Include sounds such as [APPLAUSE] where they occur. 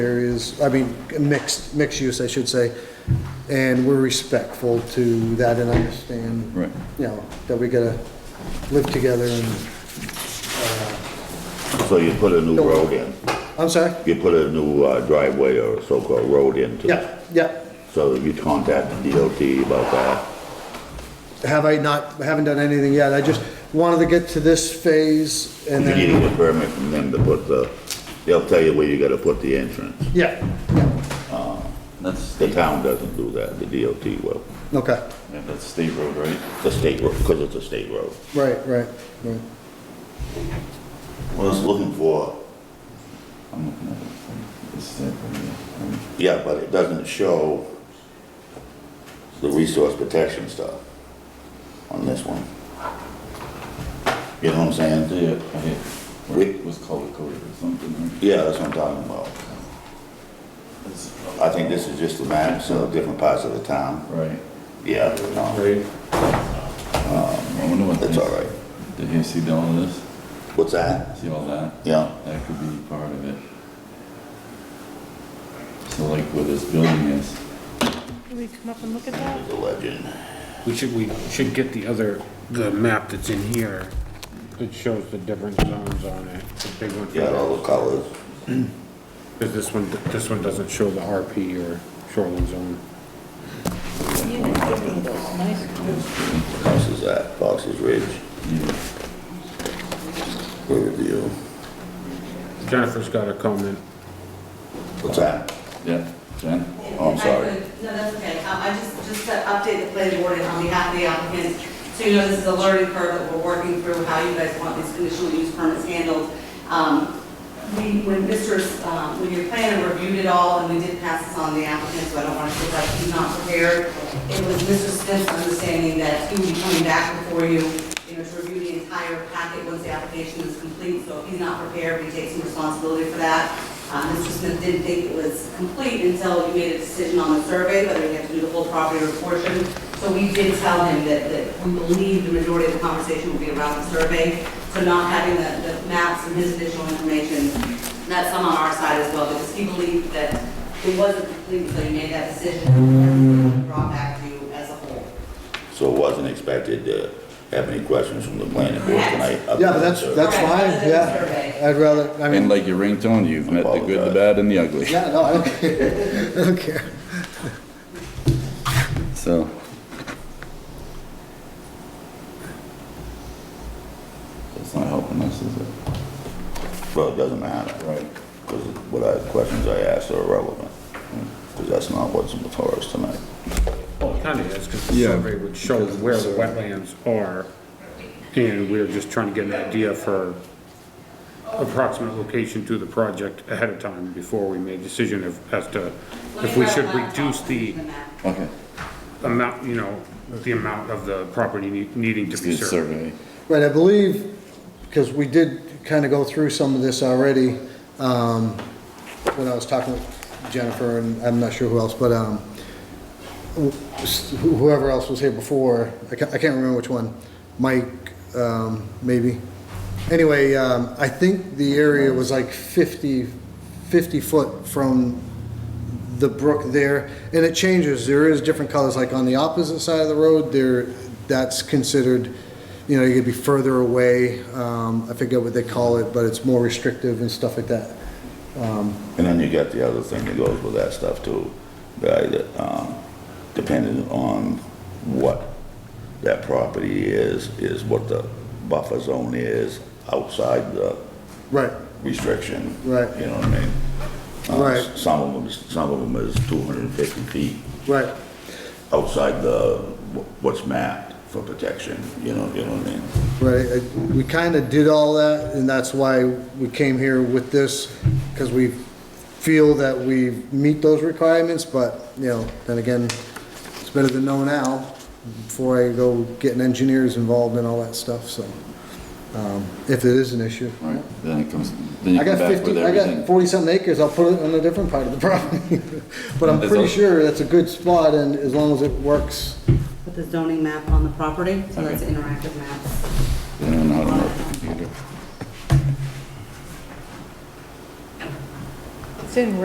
areas, I mean, mixed, mixed use, I should say, and we're respectful to that and understand. Right. You know, that we gotta live together and, So you put a new road in, I'm sorry? you put a new uh, driveway or so-called road into Yeah, yeah. So you contact the DOT about that, Have I not, haven't done anything yet, I just wanted to get to this phase and you then. need a permit from them to put the, they'll tell you where you gotta put the entrance. Yeah, yeah, That's The state, town doesn't do that, the DOT will, okay, yeah, that's state road, right? the state road, because it's a state road. right, right, right. What I was looking for, I'm looking at it. It's state road, yeah. Um, yeah, but it doesn't show the resource protection stuff on this one. You know what I'm saying? Yeah, I hit, where Wait. it was color coded or something, right? Yeah, that's what I'm talking about. It's- I think this is just the maps of different parts of the town. Right. Yeah, no, Right. I wonder what. that's they- all right. Did he see all of this? What's that? See all that? Yeah, That could be part of it. So like where this building is, Can we come up and look at that? the legend. We should, we should get the other, the map that's in here that shows the different zones on it, the big one. for Yeah, all the colors. Because this one, this one doesn't show the RP or shoreline zone. This is that, Fox's Ridge. Riverview. Jennifer's got a comment. What's that? yeah, Jen? Oh, I'm sorry. No, that's okay. Um, I just, just to update the planning board and on behalf of the applicant, so you know this is a learning curve that we're working through, how you guys want these conditional use permits handled. Um, We, when Mr., S- um, when your planner reviewed it all, and we did pass this on to the applicant, so I don't want to feel like he's not prepared, it was Mr. Smith's understanding that he would be coming back before you, you know, to review the entire packet once the application is complete, so if he's not prepared, we take some responsibility for that. Uh, Mr. Smith didn't think it was complete until you made a decision on the survey, whether you had to do the whole property or a portion. So we did tell him that, that we believe the majority of the conversation will be around the survey. So not having the, the maps and his additional information, that's some on our side as well, because he believed that it wasn't complete, so you made that decision. and we Brought back to you as a whole. So wasn't expected to have any questions from the planning board tonight. Yeah, but that's, that's fine, yeah, I'd rather, I And mean, like your ringtone, you've met the good, the Apologize. bad, and the ugly. yeah, no, I don't [LAUGHS] care, I don't care. So. That's not helping us, is it? Well, it doesn't matter. Right. Because what I, questions I asked are irrelevant. Because that's not what's before us tonight. Well, it kind of is, because the Yeah, survey would show because where it's, the uh, wetlands are. And we're just trying to get an idea for approximate location to the project ahead of time before we made a decision of, as to Let me if we grab should my reduce laptop the and map. Okay. amount, you know, the amount of the property need- needing to be Good served. survey. Right, I believe, because we did kind of go through some of this already, um, when I was talking with Jennifer, and I'm not sure who else, but, um, wh- whoever else was here before, I can't, I can't remember which one, Mike, um, maybe. Anyway, um, I think the area was like 50, 50 foot from the brook there, and it changes, there is different colors, like on the opposite side of the road, there, that's considered, you know, you could be further away, um, I forget what they call it, but it's more restrictive and stuff like that. And then you got the other thing that goes with that stuff too, right, that, um, depending on what that property is, is what the buffer zone is outside the Right, restriction. Right. You know what I mean? Uh, Right. Some of them, some of them is two hundred and fifty feet right, outside the, wh- what's mapped for protection, you know, you know what I mean? right, I- we kind of did all that, and that's why we came here with this, because we feel that we meet those requirements, but, you know, then again, it's better to know now, before I go getting engineers involved and all that stuff, so, um, if it is an issue. Right, then it comes, then you I come got back with fifty, I got everything. forty-something acres, I'll put it on a different part of the [LAUGHS] property. But I'm There's pretty al- sure that's a good spot, and as long as it works, Put the zoning map on the property, so that's Okay. interactive maps. They don't know how to work the computer. It's in